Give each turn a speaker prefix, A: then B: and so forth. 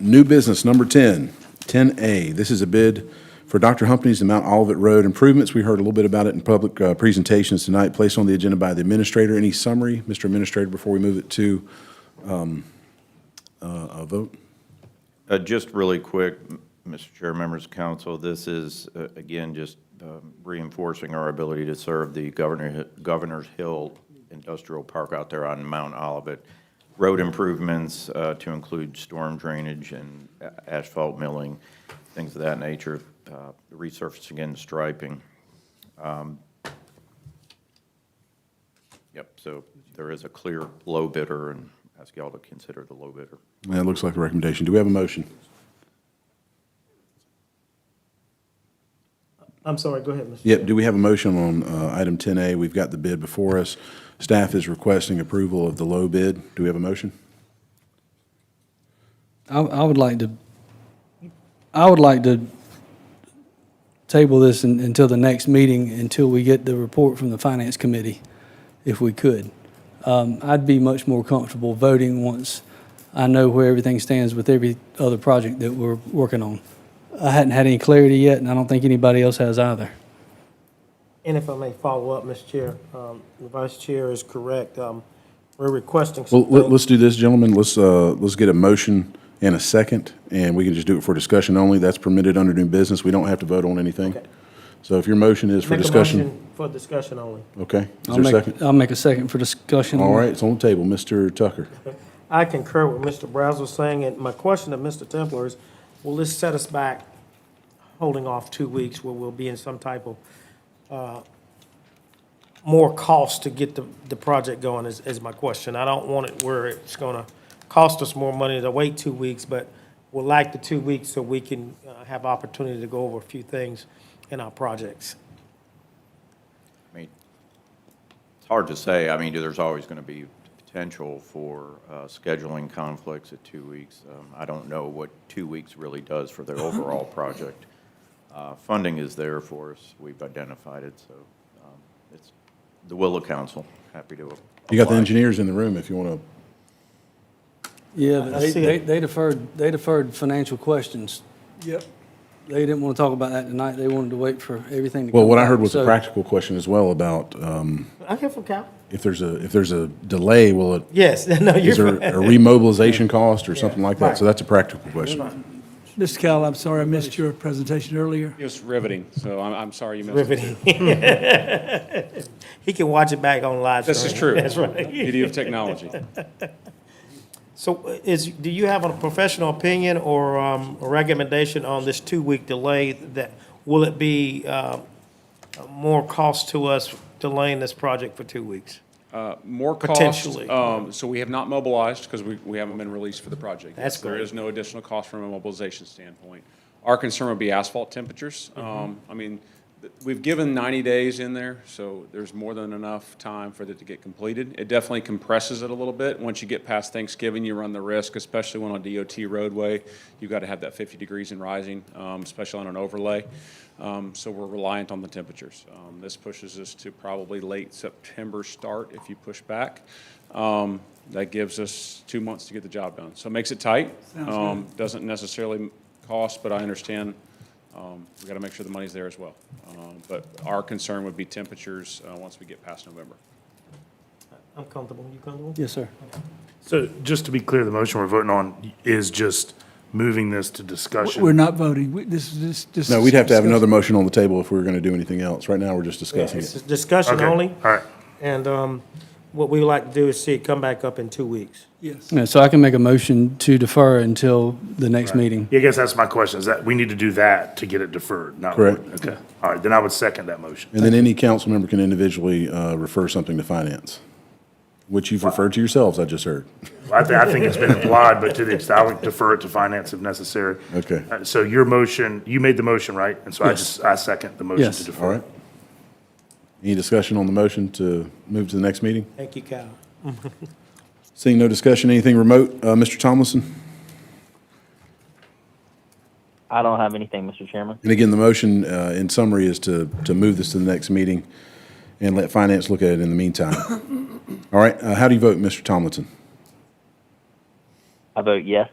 A: New business, number 10, 10A. This is a bid for Dr. Humphrey's and Mount Olivet Road improvements. We heard a little bit about it in public uh, presentations tonight, placed on the agenda by the administrator. Any summary, Mr. Administrator, before we move it to um, uh, a vote?
B: Uh, Just really quick, m- Mr. Chair, members of council, this is, uh, again, just um, reinforcing our ability to serve the Governor, Hi- Governor's Hill Industrial Park out there on Mount Olivet. Road improvements uh, to include storm drainage and a- asphalt milling, things of that nature, uh, resurfacing and striping. Um, Yep, so there is a clear low bidder, and ask y'all to consider the low bidder.
A: That looks like a recommendation. Do we have a motion?
C: I'm sorry, go ahead, Mr.
A: Yep, do we have a motion on uh, item 10A? We've got the bid before us. Staff is requesting approval of the low bid. Do we have a motion?
D: I, I would like to, I would like to table this un- until the next meeting, until we get the report from the Finance Committee, if we could. Um, I'd be much more comfortable voting once I know where everything stands with every other project that we're working on. I hadn't had any clarity yet, and I don't think anybody else has either.
C: And if I may follow up, Mr. Chair, um, the Vice Chair is correct. Um, We're requesting
A: Well,
C: some
A: let-
C: things.
A: let's do this, gentlemen. Let's, uh, let's get a motion and a second, and we can just do it for discussion only. That's permitted under new business. We don't have to vote on anything.
C: Okay.
A: So if your motion is for
C: Make a
A: discussion,
C: motion For discussion only.
A: okay? Is
D: I'll
A: there a
D: make-
A: second?
D: I'll make a second for discussion.
A: All right, it's on the table. Mr. Tucker.
C: I concur with Mr. Brazel saying, and my question to Mr. Templer is, will this set us back holding off two weeks where we'll be in some type of uh, more cost to get the, the project going is, is my question. I don't want it where it's gonna cost us more money to wait two weeks, but we'll like the two weeks so we can uh, have opportunity to go over a few things in our projects.
B: I mean, it's hard to say. I mean, there's always going to be potential for uh, scheduling conflicts at two weeks. Um, I don't know what two weeks really does for the overall project. Uh, Funding is there for us. We've identified it, so um, it's the will of council. Happy to apply.
A: You got the engineers in the room if you want to.
D: Yeah,
C: I
D: but they-
C: see it.
D: they they deferred, they deferred financial questions. Yep. They didn't want to talk about that tonight. They wanted to wait for everything to come
A: Well, what I
D: back.
A: heard was a
D: So-
A: practical question as well about um,
C: I hear from Cal.
A: if there's a, if there's a delay, will it,
C: Yes, no,
A: is there
C: you're
A: a remobilization cost or something like that? So
C: Right.
A: that's a practical question.
E: Mr. Cal, I'm sorry I missed your presentation earlier.
F: It was riveting, so I'm, I'm sorry you missed it.
C: riveting. He can watch it back on live.
F: This is
C: stream.
F: true.
C: That's right.
F: Beauty of technology.
C: So uh, is, do you have a professional opinion or um, a recommendation on this two-week delay that, will it be uh, more cost to us delaying this project for two weeks?
F: More cost.
C: Potentially.
F: Um, so we have not mobilized because we, we haven't been released for the project.
C: That's
F: Yes, There
C: great.
F: is no additional cost from a mobilization standpoint. Our concern would be asphalt temperatures. Um, I mean, th- we've given ninety days in there, so there's more than enough time for it to get completed. It definitely compresses it a little bit. Once you get past Thanksgiving, you run the risk, especially when on DOT roadway, you've got to have that fifty degrees and rising, um, especially on an overlay. Um, so we're reliant on the temperatures. Um, this pushes us to probably late September start if you push back. Um, that gives us two months to get the job done. So it makes it tight. Um, Doesn't necessarily cost, but I understand, um, we gotta make sure the money's there as well. Um, But our concern would be temperatures, uh, once we get past November.
C: I'm comfortable. You comfortable?
D: Yes, sir.
G: So just to be clear, the motion we're voting on is just moving this to discussion.
E: We're not voting. We- This is just- this.
A: No, we'd have to have another
E: discussion.
A: motion on the table if we were going to do anything else. Right now, we're just discussing
C: It's
A: it.
C: a discussion
G: Okay,
C: only,
G: All right.
C: and um, what we would like to do is see it come back up in two weeks.
E: Yes.
D: Yeah, so I can make a motion to defer until the next meeting.
G: Yeah, I guess that's my question, is that we need to do that to get it deferred, not.
A: Correct.
G: Okay, all right, then I would second that motion.
A: And then any council member can individually uh, refer something to finance, which you've referred to yourselves, I just heard.
G: I think, I think it's been implied, but to the extent, I would defer it to finance if necessary.
A: Okay.
G: Uh, So your motion, you made the motion, right? And so I
D: Yes.
G: just, I second the motion
D: Yes.
G: to defer.
A: All right? Any discussion on the motion to move to the next meeting?
C: Thank you, Cal.
A: Seeing no discussion, anything remote, uh, Mr. Tomlinson?
H: I don't have anything, Mr. Chairman.
A: And again, the motion, uh, in summary, is to, to move this to the next meeting and let finance look at it in the meantime. All right, uh, how do you vote, Mr. Tomlinson?
H: I vote yes.